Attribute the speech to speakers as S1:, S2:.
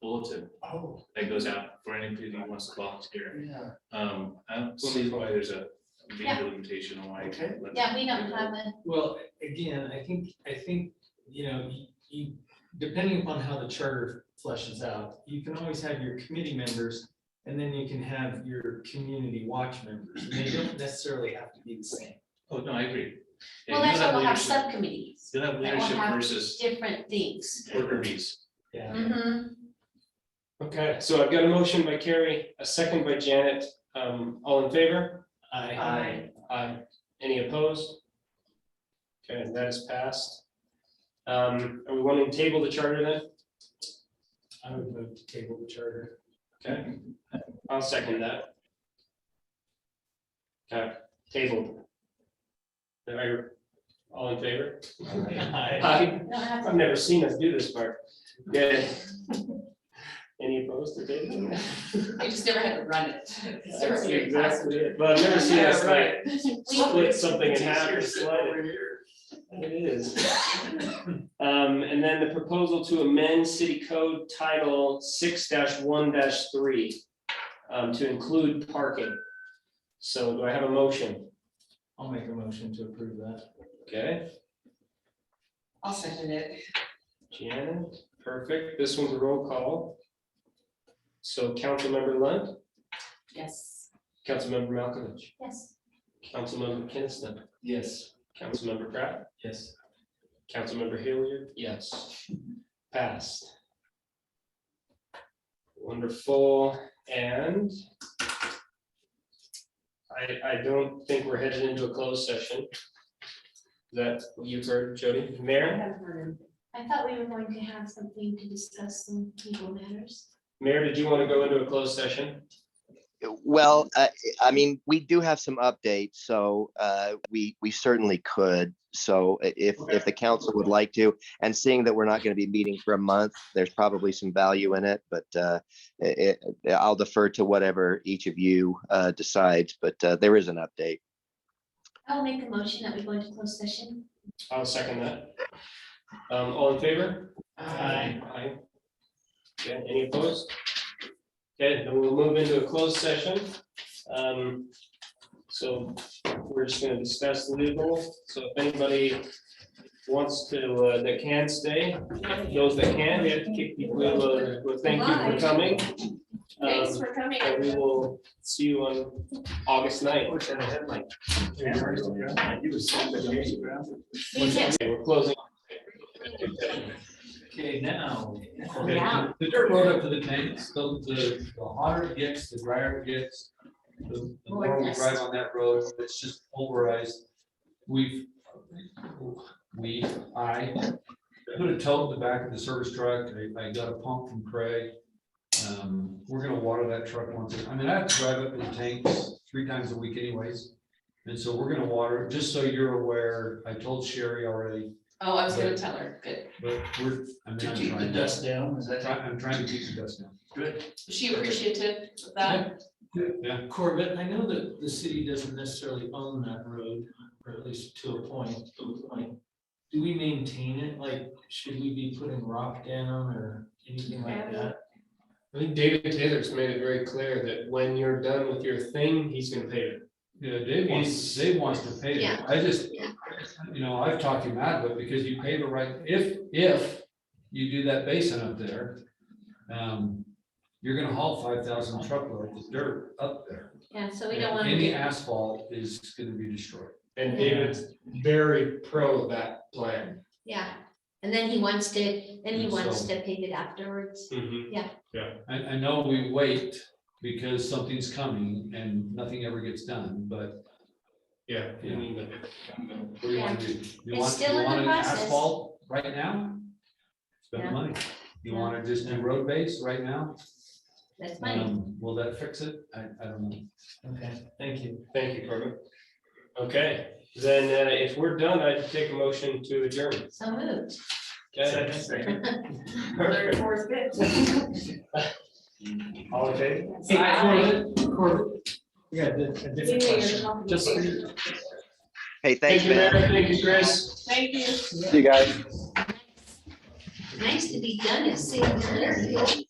S1: bulletin
S2: Oh,
S1: that goes out for anybody who wants to volunteer.
S2: yeah,
S1: Um, I don't see why there's a
S3: Yeah.
S1: legal limitation on why. you
S2: Okay.
S1: let
S3: Yeah, we don't
S1: them
S3: have a,
S4: Well, again, I think, I think, you know, you- you, depending upon how the charter fleshes out, you can always have your committee members, and then you can have your community watch members, and they don't necessarily have to be the same.
S1: Oh, no, I agree. Yeah,
S3: well, that's
S1: you'll
S3: why we'll have
S1: leadership-
S3: subcommittees,
S1: You'll have
S3: we'll
S1: leadership
S3: have-
S1: versus
S3: different things.
S1: worker bees.
S4: Yeah,
S3: Mm-hmm.
S5: Okay, so I've got a motion by Carrie, a second by Janet. Um, all in favor?
S4: I,
S3: Aye.
S5: Aye. Any opposed? Okay, and that is passed. Um, are we wanting to table the charter then?
S4: I would move to table the charter.
S5: Okay, I'll second that. Okay, tabled. All right, all in favor?
S4: Aye.
S5: Aye.
S3: We don't have to-
S5: I've never seen us do this part. Yeah. Any opposed to tabling?
S6: I just never had to run it. It's never
S5: That's
S6: been a
S5: exactly
S6: passenger.
S5: it. But I've never seen us like
S3: we-
S5: split something in half or slide it. It is. Um, and then the proposal to amend city code title six one three, um, to include parking. So do I have a motion?
S4: I'll make a motion to approve that.
S5: Okay,
S6: I'll second it.
S5: Janet, perfect. This one's a roll call. So Councilmember Lund,
S6: Yes.
S5: Councilmember Malkovich,
S3: Yes,
S5: Councilmember Kinnison,
S4: Yes.
S5: Councilmember Pratt.
S4: Yes.
S5: Councilmember Hilliard? Yes. Passed. Wonderful, and I, I don't think we're headed into a closed session. That you've heard, Jody, Mayor,
S3: I thought we were going to have something to discuss some legal matters.
S5: Mayor, did you want to go into a closed session?
S7: Well, I, I mean, we do have some updates, so uh, we, we certainly could. So i- if, if the council would like to, and seeing that we're not going to be meeting for a month, there's probably some value in it, but uh, i- i- I'll defer to whatever each of you uh, decides, but uh, there is an update.
S3: I'll make a motion that we go into closed session.
S5: I'll second that. Um, all in favor?
S4: Aye.
S5: Aye. Okay, any opposed? Okay, then we'll move into a closed session. Um, so we're just gonna discuss legal, so if anybody wants to, uh, that can stay, those that can, we have to kick people, uh, well, thank you for coming.
S3: Thanks
S5: Um,
S3: for coming.
S5: And we will see you on August ninth.
S3: You can
S5: Okay, we're closing.
S2: okay, now.
S3: Yeah.
S2: The dirt road up to the tank, so the, the hotter it gets, the drier it gets, the the
S3: More
S2: more we
S3: dust.
S2: drive on that road, it's just pulverized. We've, we, I put a tote in the back of the service truck, I, I got a pump from Craig. Um, we're gonna water that truck once, a- I mean, I have to drive up to the tanks three times a week anyways. And so we're gonna water, it. just so you're aware, I told Sherry already,
S6: Oh, I was gonna tell her, good.
S2: but we're, I mean, I'm trying.
S4: down, is
S2: Try- I'm trying to keep the dust down.
S6: Was she appreciative of that?
S2: Yeah,
S4: Corbett, I know that the city doesn't necessarily own that road, or at least to a point, but like, do we maintain it? Like, should we be putting rock down or anything like that?
S5: I think David Taylor's made it very clear that when you're done with your thing, he's gonna pay it.
S2: yeah, Dave wants, Dave wants to pave it.
S3: Yeah.
S2: I just, you know, I've talked him out of it because you pave it right, if, if you do that basin up there, um, you're gonna haul five thousand truckloads of dirt up there.
S3: Yeah, so we don't want to
S2: Any
S3: do,
S2: asphalt is gonna be destroyed.
S5: And David's very pro that plan.
S3: yeah. And then he wants to, then he
S2: And
S3: wants
S2: so-
S3: to pave it afterwards.
S5: Mm-hmm.
S2: I, I know we wait because something's coming and nothing ever gets done, but
S5: Yeah. I
S2: Yeah.
S5: mean,
S2: what do you want to do? You
S3: It's
S2: want, you
S3: still in the
S2: want an
S3: process.
S2: asphalt right now? Spend
S3: Yeah.
S2: the money. You
S3: Yeah.
S2: want to just do road base right now?
S3: That's fine.
S2: Um, will that fix it? I, I don't know.
S4: Okay, thank you.
S5: Thank you, Corbin. Okay, then uh, if we're done, I'd take a motion to adjourn.
S3: So moved.
S5: Okay.
S6: Third, or fourth, fifth.
S5: All in favor?
S4: Hey,
S6: Aye.
S4: Corbett, Corbett, we got a di- a different question. Just for you.
S7: Hey,
S5: Thank
S7: thanks,
S5: you,
S7: man.
S5: Mary. Thank you, Chris.
S6: Thank you.
S7: See you guys.
S3: Nice to be done at six thirty.